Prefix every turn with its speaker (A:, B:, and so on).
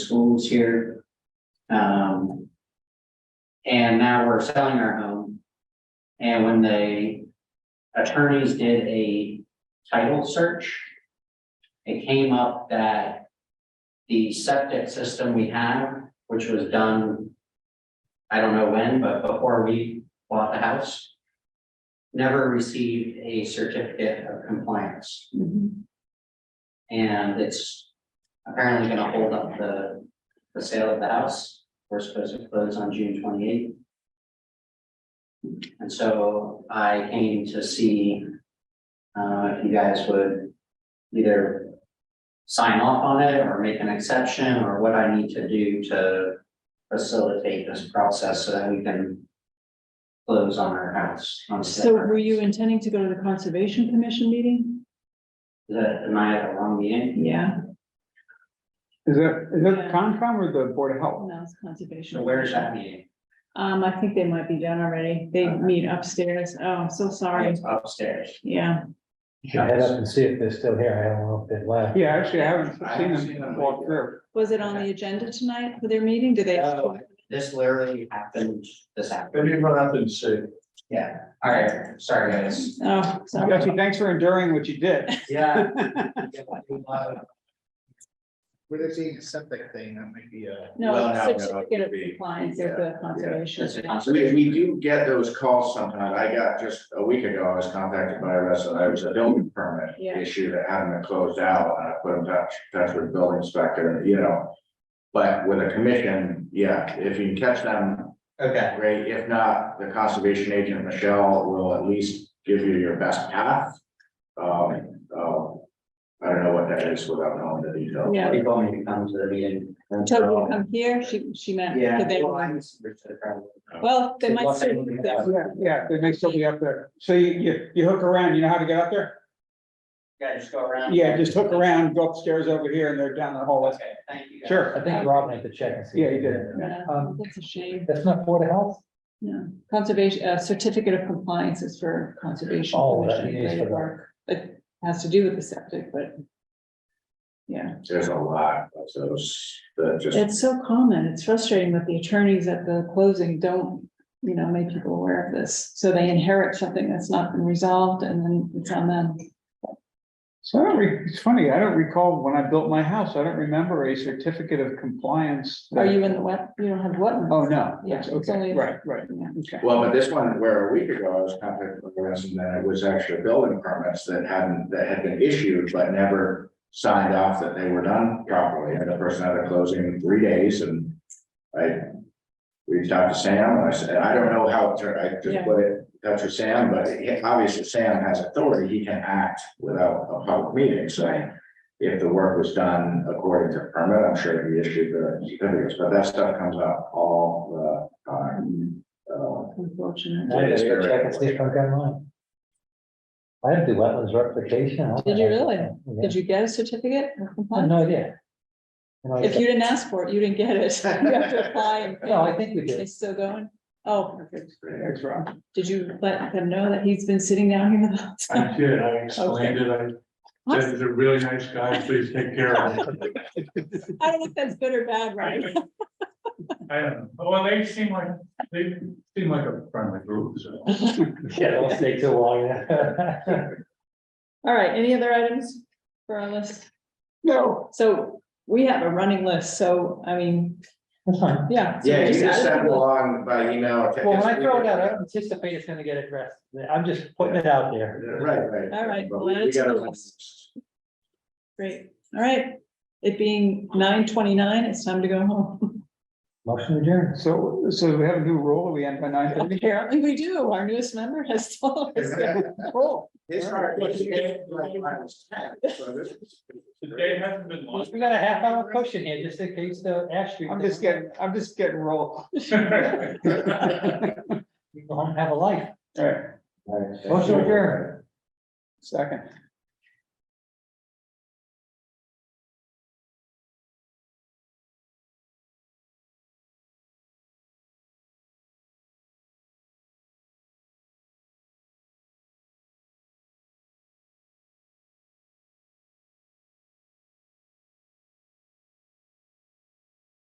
A: schools here. Um. And now we're selling our home. And when the attorneys did a title search. It came up that the septic system we have, which was done. I don't know when, but before we bought the house. Never received a certificate of compliance. And it's apparently gonna hold up the, the sale of the house. We're supposed to close on June twenty-eighth. And so I came to see, uh, if you guys would either sign off on it or make an exception or what I need to do to facilitate this process so that we can close on our house. on
B: So
A: September.
B: were you intending to go to the Conservation Commission meeting?
A: Is that, am I at a wrong meeting?
B: Yeah.
C: Is that, is that
B: Yeah.
C: Concom or the Board of Health?
B: No, it's Conservation.
A: So where's that meeting?
B: Um, I think they might be done already. They
A: Okay.
B: meet upstairs. Oh, I'm so sorry.
A: It's upstairs.
B: Yeah,
D: You should head up and see if they're still here. I don't know if they left.
C: Yeah, actually, I haven't
A: I haven't
C: seen
A: seen
C: them
A: them
C: walk
A: either.
C: through.
B: was it on the agenda tonight for their meeting? Did they?
A: Oh. This literally happened this afternoon.
E: Maybe run out and see.
A: Yeah, all right, sorry, guys.
B: Oh, sorry.
C: Actually, thanks for enduring what you did.
A: Yeah.
F: Would it be a septic thing that might be
D: uh,
F: a?
B: No,
E: Well, no, no,
B: certificate of
E: it'd be-
B: compliance of the conservation.
A: That's a concept.
E: We, we do get those calls sometimes. I got just a week ago, I was contacted by a resident. I was a building permit
B: Yeah.
E: issue that hadn't been closed out. And I put in touch, touch with building inspector, you know. But with a commission, yeah, if you can catch them,
A: Okay,
E: great. If not, the conservation agent, Michelle, will at least give you your best path. Um, uh, I don't know what that is without knowing the details.
B: Yeah.
A: people want me to come to the meeting.
B: Tell them to come here. She, she meant.
A: Oh. Yeah.
B: could they-
A: well, I misunderstood probably.
B: Well, they might.
A: Well, they-
B: still be there.
C: Yeah, yeah, they may still be up there. So you, you, you hook around, you know how to get up there?
A: Yeah, just go around.
C: Yeah, just hook around, go upstairs over here and they're down the hallway.
A: Okay, thank you. guys.
C: Sure.
D: I think Rob made the check and see.
C: Yeah, he did.
B: Yeah,
D: Um,
B: That's a shame.
D: That's not Board of Health?
B: No, conservation, uh, certificate of compliance is for conservation.
D: Oh, that
B: commission
D: is for
B: related
D: the-
B: work. It has to do with the septic, but. Yeah,
E: There's a lot of those that just.
B: it's so common. It's frustrating that the attorneys at the closing don't, you know, make people aware of this. So they inherit something that's not been resolved and then it's on them.
C: So I don't re- it's funny, I don't recall when I built my house, I don't remember a certificate of compliance. that-
B: Are Oh, you in the wet? You don't have wetlands?
C: Oh, no,
B: Yeah,
C: that's
B: it's
C: okay,
B: only-
C: right, right,
B: Yeah.
C: okay.
E: Well, but this one where a week ago, I was contacted with a resident that it was actually building permits that hadn't, that had been issued, but never signed off that they were done properly, and the person had a closing in three days, and I reached out to Sam, and I said, I don't know how, it turned. I
B: Yeah.
E: just put it, in touch with Sam, but he- obviously Sam has authority, he can act without a public meeting, so if the work was done according to permit, I'm sure he issued the certificates, but that stuff comes up all the time.
B: Mm,
E: Uh,
B: Unfortunate.
D: I just go check and see if I've got mine. I had to do wetlands replication.
B: Did you really?
D: Yeah.
B: Did you get a certificate of
D: I had
B: compliance?
D: no idea. You know,
B: If you didn't ask for it, you didn't get it. You have to apply and. pay.
D: No, I think we
B: They
D: did.
B: still going? Oh, perfect.
C: Thanks, Rob.
B: Did you let them know that he's been sitting down here the whole time?
G: I did, I explained it, I said,
B: What?
G: he's a really nice guy, please take care of him.
B: I don't know if that's good or bad, right?
G: I don't know, well, they seem like, they seem like a friendly group, so.
D: Yeah, don't stay too long. yeah.
B: All right, any other items for our list?
C: No,
B: So we have a running list, so I mean,
D: That's fine.
B: yeah. so
E: Yeah, you
B: just
E: just
B: add
E: send them
B: it.
E: along by email. or text.
D: Well, when I throw it out, I don't anticipate it's gonna get addressed. I'm just putting it out there.
E: Right, right.
B: All right,
E: But
B: well,
E: we- we
B: that's
E: gotta-
B: cool. Great, all right. It being nine twenty-nine, it's time to go home.
D: Motion adjourned.
C: so, so we have a new rule, we end by nine thirty?
B: Apparently we do. Our newest member has told us.
C: Cool.
E: It's hard. it's- it's like I was 10, so this is-
G: The day hasn't been long.
D: We got a half hour cushion here, just in case the Ash Street.
C: I'm just getting, I'm just getting rolled.
D: You go home and have a life.
C: All right,
E: All right, thank
D: Motion
E: you.
D: adjourned.
C: second.